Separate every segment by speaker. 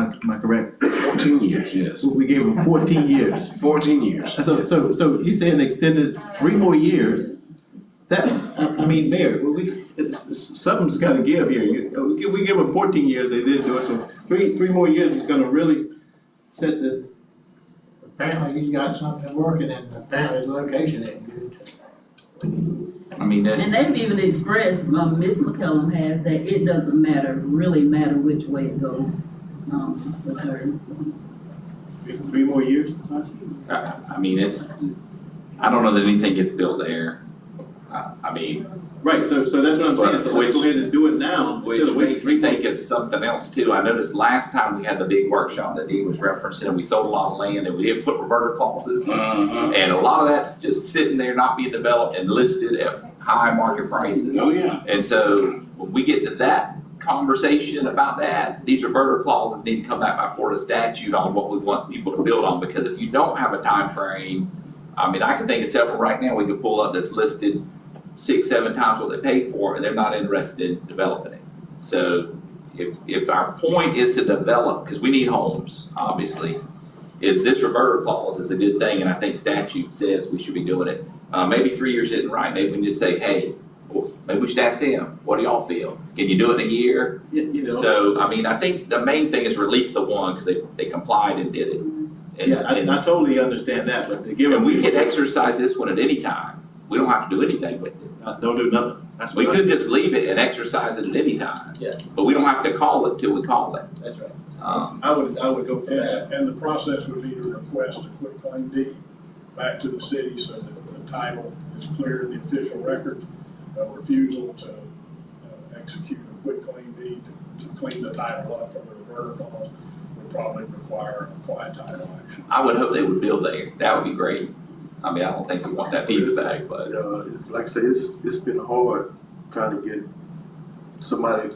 Speaker 1: am I correct?
Speaker 2: Fourteen years, yes.
Speaker 1: So We gave them fourteen years.
Speaker 2: Fourteen years.
Speaker 1: So, so, so you saying they extended three more years? That, I, I mean, Mayor, we- we, it's, it's- something's gotta give here. You, uh, we give, we give them fourteen years, they didn't do it, so three, three more years is gonna really set the,
Speaker 3: Apparently he's got something working and apparently the location ain't good.
Speaker 4: I mean, that,
Speaker 5: And they've even expressed, uh, Ms. McCellum has, that it doesn't matter, really matter which way it goes, um, with her, so.
Speaker 1: three more years.
Speaker 4: I, Uh, I mean, it's, I don't know that anything gets built there. I, I mean,
Speaker 1: Right, so, so that's what I'm saying, so let's go ahead and do it now,
Speaker 4: which
Speaker 1: instead of waiting
Speaker 4: makes
Speaker 1: three
Speaker 4: me
Speaker 1: more
Speaker 4: think it's something else too. I noticed last time we had the big workshop that Dean was referencing, we sold a lot of land and we didn't put reverter clauses.
Speaker 2: Uh-huh.
Speaker 4: And a lot of that's just sitting there, not being developed and listed at high market prices.
Speaker 2: Oh, yeah.
Speaker 4: And so when we get to that conversation about that, these reverter clauses need to come back by Florida statute on what we want people to build on, because if you don't have a time frame, I mean, I can think of several right now we could pull up that's listed six, seven times what they paid for, and they're not interested in developing it. So if, if our point is to develop, because we need homes, obviously, is this reverter clause is a good thing, and I think statute says we should be doing it. Uh, maybe three years isn't right, maybe we can just say, hey, well, maybe we should ask them, what do y'all feel? Can you do it in a year?
Speaker 1: You, you know.
Speaker 4: So, I mean, I think the main thing is release the one, because they, they complied and did it. And-
Speaker 1: Mm-hmm. Yeah, I, I totally understand that, but to give
Speaker 4: And,
Speaker 1: them.
Speaker 4: and we could exercise this one at any time, we don't have to do anything with it.
Speaker 1: Uh, Don't do nothing, that's
Speaker 4: We
Speaker 1: what I.
Speaker 4: could just leave it and exercise it at any time,
Speaker 1: Yes,
Speaker 4: but we don't have to call it till we call it.
Speaker 1: that's right.
Speaker 4: Um,
Speaker 1: I would, I would go for that.
Speaker 6: And, and the process would be to request a quick claim deed back to the city so that the title is clear in the official record. A refusal to uh, execute a quick claim deed to clean the title up from the reverter clause would probably require a quiet title action.
Speaker 4: I would hope they would build there, that would be great. I mean, I don't think we want that piece back, but.
Speaker 7: Uh, like I say, it's, it's been hard trying to get somebody,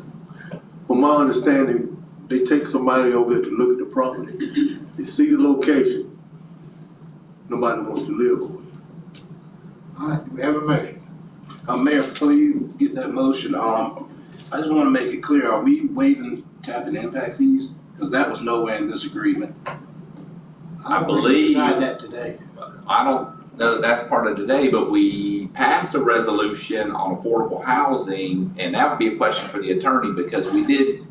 Speaker 7: from my understanding, they take somebody over there to look at the property, they see the location, nobody wants to live over it.
Speaker 3: All right, do we have a motion?
Speaker 2: Uh, Mayor, before you get that motion, um, I just wanna make it clear, are we waiving cap and impact fees? Cause that was nowhere in this agreement.
Speaker 4: I believe-
Speaker 3: Decide that today.
Speaker 4: I don't know that that's part of today, but we passed a resolution on affordable housing, and that would be a question for the attorney, because we did,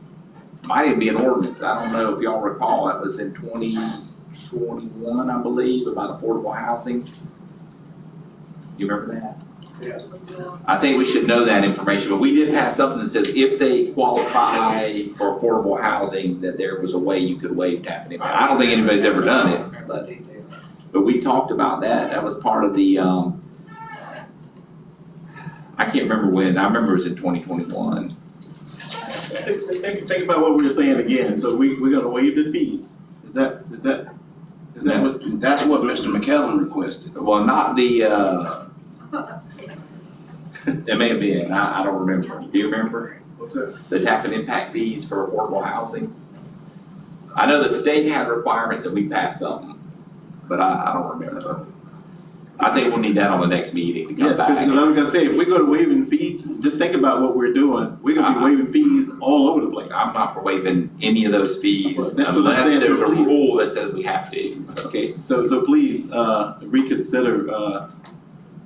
Speaker 4: might even be an ordinance, I don't know if y'all recall, that was in twenty twenty-one, I believe, about affordable housing. You remember that? I think we should know that information, but we did pass something that says if they qualify for affordable housing, that there was a way you could waive tap and I don't think anybody's ever done it, but. But we talked about that, that was part of the, um, I can't remember when, I remember it was in twenty twenty-one.
Speaker 1: Think, think- think about what we were saying again, so we, we're gonna waive the fees, is that, is that, is that what?
Speaker 2: That's what Mr. McKellen requested.
Speaker 4: Well, not the, uh,
Speaker 8: I thought that was taken.
Speaker 4: it may have been, I, I don't remember, do you remember?
Speaker 1: What's that?
Speaker 4: The tap and impact fees for affordable housing? I know the state had requirements and we passed something, but I, I don't remember. I think we'll need that on the next meeting to come
Speaker 1: Yes, cause,
Speaker 4: back.
Speaker 1: 'cause I was gonna say, if we go to waiving fees, just think about what we're doing, we're gonna be
Speaker 4: Uh-huh.
Speaker 1: waiving fees all over the place.
Speaker 4: I'm not for waiving any of those
Speaker 1: Well,
Speaker 4: fees
Speaker 1: that's what I'm
Speaker 4: unless
Speaker 1: saying, so
Speaker 4: there's a
Speaker 1: please.
Speaker 4: rule that says we have to.
Speaker 1: Okay, so, so please, uh, reconsider, uh,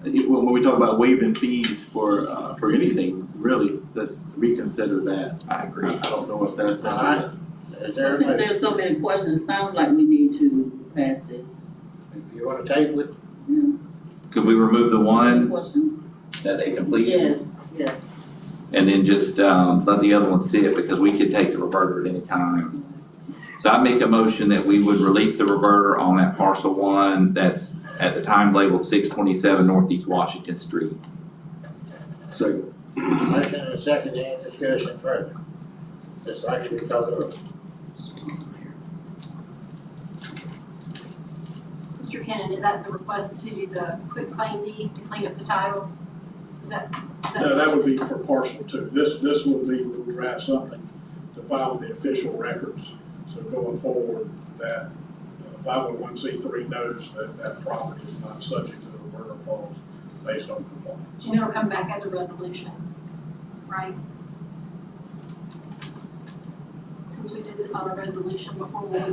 Speaker 1: it- when, when we talk about waiving fees for, uh, for anything, really, just reconsider that.
Speaker 4: I
Speaker 1: I
Speaker 4: agree.
Speaker 1: I don't know if that's.
Speaker 3: Alright. Is there
Speaker 5: So
Speaker 3: a
Speaker 5: since
Speaker 3: motion?
Speaker 5: there's so many questions, it sounds like we need to pass this.
Speaker 3: If you wanna table it,
Speaker 5: Yeah.
Speaker 4: Could we remove the
Speaker 5: Any
Speaker 4: one
Speaker 5: Questions?
Speaker 4: that they completed?
Speaker 5: Yes, yes.
Speaker 4: And then just, um, let the other one sit, because we could take the reverter at any time. So I make a motion that we would release the reverter on that parcel one that's at the time labeled six twenty-seven Northeast Washington Street.
Speaker 7: Second,
Speaker 3: motion and a second, any discussion further? This actually called the roll.
Speaker 8: Mr. Cannon, is that the request to do the quick claim deed to clean up the title? Is that? is
Speaker 6: No, that would be for parcel two. This, this would be, we would draft something to file with the official records. So going forward, that five oh one C three knows that that property is not subject to the murder clause based on compliance.
Speaker 8: And it'll come back as a resolution, right? So since we did this on a resolution before, will we